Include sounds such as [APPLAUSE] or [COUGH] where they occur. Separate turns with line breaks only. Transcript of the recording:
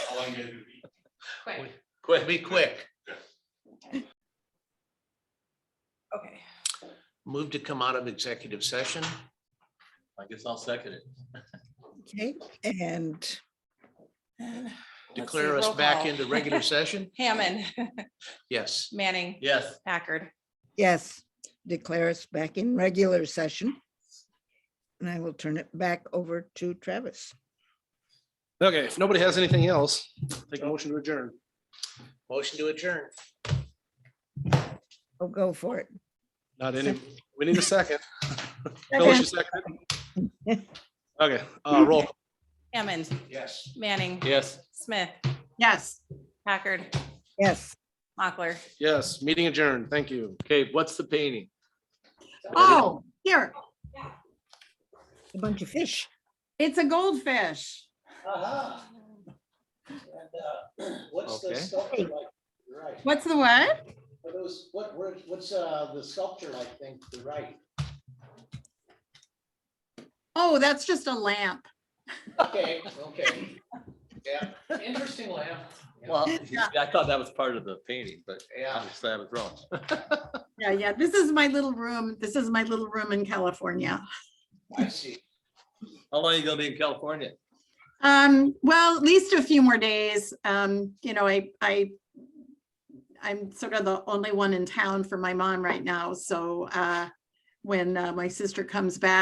all you gotta do. is eat.
Quick.
Quick, be quick.
Okay.
Move to come out of executive session.
I guess I'll second it.
Okay, and. and let's see,
Declare us
roll
back
call.
into
[LAUGHS]
[LAUGHS]
regular session.
Hammond,
Yes.
Manning,
Yes.
Packard.
Yes, declare us back in regular session. And I will turn it back over to Travis.
Okay, if nobody has anything else, take a motion to adjourn.
Motion to adjourn.
Oh, go for it.
Not any, we need a second. Phyllis, you seconded? Okay, uh, roll.
Hammond,
Yes.
Manning,
Yes.
Smith,
Yes.
Packard,
Yes.
Mochler.
Yes, meeting adjourned. Thank you.
Okay, what's the painting?
Oh, here,
A bunch of fish.
it's a goldfish.
Aha. Uh-huh. And, uh, [CLEARS THROAT] What's the
Okay.
sculpture like? Right,
What's the what?
What those, what, where's- what's, uh, the sculpture like thing to the right?
Oh, that's just a lamp.
Okay, [LAUGHS] okay. Yeah, interesting lamp.
Well, [LAUGHS] I thought that was part of the painting, but
Yeah.
obviously I was wrong.
Yeah, yeah, this is my little room. This is my little room in California.
I see.
How long are you gonna be in California?
Um, well, at least a few more days. Um, you know, I, I, I'm sort of the only one in town for my mom right now, so, uh, when, uh, my sister comes back.